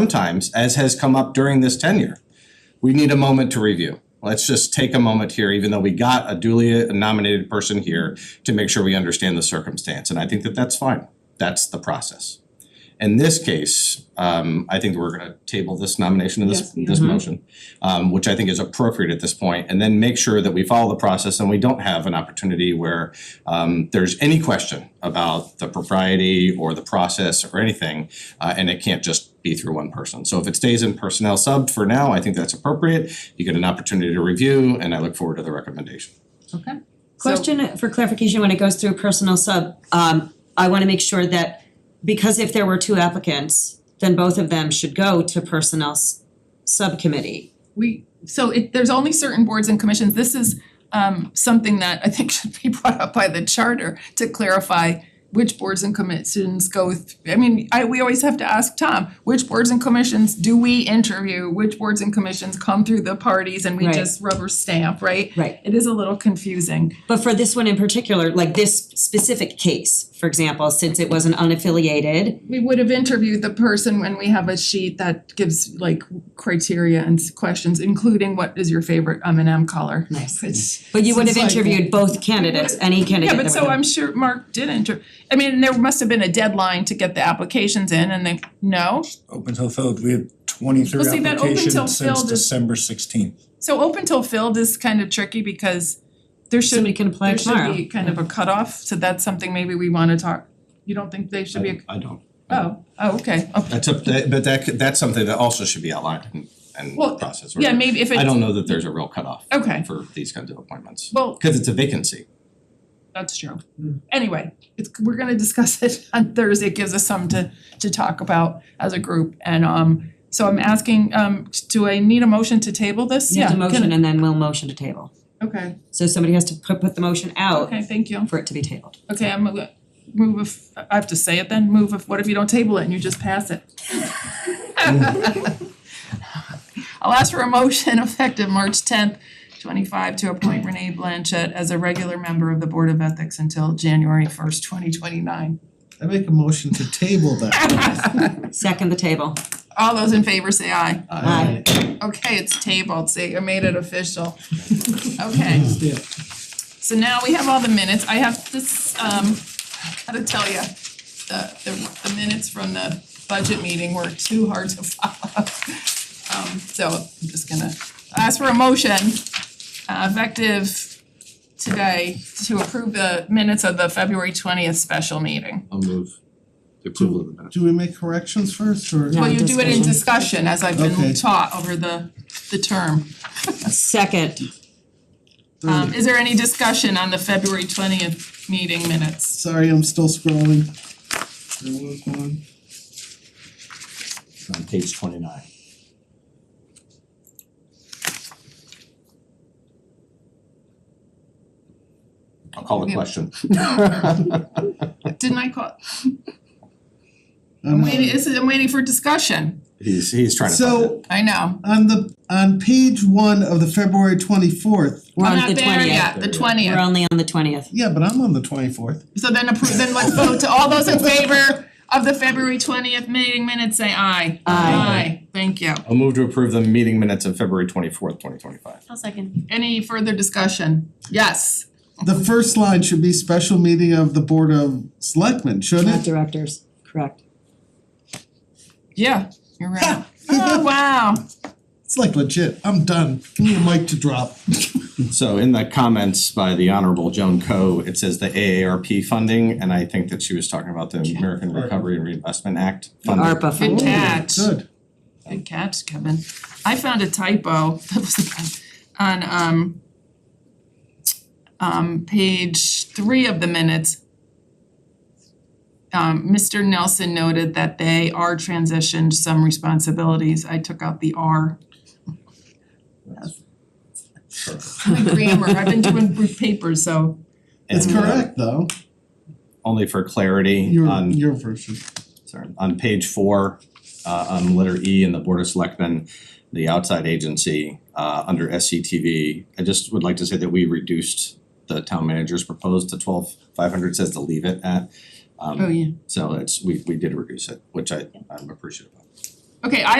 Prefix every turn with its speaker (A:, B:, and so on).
A: sometimes, as has come up during this tenure, we need a moment to review. Let's just take a moment here, even though we got a duly nominated person here, to make sure we understand the circumstance, and I think that that's fine. That's the process. In this case, um, I think that we're gonna table this nomination and this
B: Yes, we
A: this motion, um, which I think is appropriate at this point, and then make sure that we follow the process and we don't have an opportunity where um there's any question about the propriety or the process or anything, uh and it can't just be through one person. So if it stays in personnel sub for now, I think that's appropriate. You get an opportunity to review and I look forward to the recommendation.
B: Okay.
C: Question for clarification, when it goes through personal sub, um, I wanna make sure that, because if there were two applicants, then both of them should go to personnel s- subcommittee.
B: We,
D: so it, there's only certain boards and commissions, this is um something that I think should be brought up by the charter to clarify which boards and commissions go, th- I mean, I, we always have to ask Tom, which boards and commissions do we interview? Which boards and commissions come through the parties and we
C: Right.
D: just rubber stamp, right?
C: Right.
D: It is a little confusing.
C: But for this one in particular, like this specific case, for example, since it was an unaffiliated,
D: We would have interviewed the person when we have a sheet that gives like criteria and s- questions, including what is your favorite M and M color?
C: Nice.
D: Which
C: but you would have
D: seems like-
C: interviewed both candidates, any candidate
D: Yeah,
C: that
D: but
C: would
D: so I'm sure Mark did enter, I mean, there must have been a deadline to get the applications in and they, no?
E: Open till filled, we had twenty-three
D: Well, see, that open till
E: applications since
D: filled is-
E: December sixteenth.
D: So open till filled is kind of tricky because there
C: Somebody
D: should,
C: can apply
D: there
C: tomorrow.
D: should be kind of a cutoff, so that's something maybe we wanna talk, you don't think they should be, a-
A: I don't.
D: oh, oh, okay, oh.
A: That's a, that- but that could- that's something that also should be outlined and and
D: Well,
A: process.
D: Yeah, maybe if it's.
A: I don't know that there's a real cutoff
D: Okay.
A: for these kinds of appointments,
D: Well,
A: cause it's a vacancy.
D: that's true. Anyway, it's, we're gonna discuss it on Thursday, it gives us some to to talk about as a group and um, so I'm asking, um, do I need a motion to table this?
C: You
D: Yeah.
C: have to
D: can-
C: motion and then we'll motion to table.
D: Okay.
C: So somebody has to put put the motion out
D: Okay, thank you.
C: for it to be tabled.
D: Okay, I'm gonna move if, I have to say it then, move if, what if you don't table it and you just pass it? I'll ask for a motion effective March tenth, twenty-five, to appoint Renee Blanchett as a regular member of the Board of Ethics until January first, twenty twenty-nine.
F: I make a motion to table that.
C: Second the table.
D: All those in favor say aye.
C: Aye.
D: Okay, it's tabled, see, I made it official. Okay.
F: Yeah.
D: So now we have all the minutes, I have this, um, gotta tell you, the, the, the minutes from the budget meeting were too hard to follow. Um, so I'm just gonna ask for a motion, uh, effective today, to approve the minutes of the February twentieth special meeting.
A: I'll move the
F: approval
A: of the minutes.
F: Do we make corrections first or?
C: No.
D: Well, you do it in
C: discussion.
D: discussion, as I've
F: Okay.
D: been taught over the, the term.
C: Second.
D: Um,
F: Thirty.
D: is there any discussion on the February twentieth meeting minutes?
F: Sorry, I'm still scrolling. There was one.
A: On page twenty-nine. I'll call the
D: Yeah.
A: question.
D: Didn't I call,
F: I'm
D: I'm
F: not-
D: waiting, this is, I'm waiting for discussion,
A: He's he's trying to find
F: So
A: it.
D: I know.
F: on the, on page one of the February twenty-fourth,
C: We're on
D: I'm
C: the
D: not there
C: twentieth.
D: yet, the
C: We're
D: twentieth,
C: only on the twentieth.
F: yeah, but I'm on the twenty-fourth.
D: so then approve, then let's vote to all those in favor of the February twentieth meeting minutes, say aye.
C: Aye.
D: Aye, thank you.
A: I'll move to approve the meeting minutes of February twenty-fourth, twenty twenty-five.
C: I'll second.
D: Any further discussion? Yes,
F: The first line should be special meeting of the Board of Selectmen,
C: Not
F: shouldn't it?
C: directors, correct.
D: yeah, you're right. Oh, wow,
F: It's like legit, I'm done, give me a mic to drop.
A: So in the comments by the Honorable Joan Coe, it says the AARP funding, and I think that she was talking about the American Recovery and Reinvestment Act funding.
C: ARPA
D: good
C: funding.
D: catch.
F: Good,
D: Good catch, Kevin. I found a typo that was on um um page three of the minutes. Um Mr. Nelson noted that they are transitioned some responsibilities. I took out the R. The grammar, I've been doing group papers, so
F: it's
A: And, uh,
F: correct though,
A: Only for clarity
F: your,
A: on
F: your version.
A: sorry, on page four, uh, on letter E in the Board of Selectmen, the outside agency, uh, under SCTV, I just would like to say that we reduced the town manager's proposed to twelve five hundred, says to leave it at. Um,
D: Oh, yeah.
A: so it's, we, we did reduce it, which I, I'm appreciative of.
D: Okay, I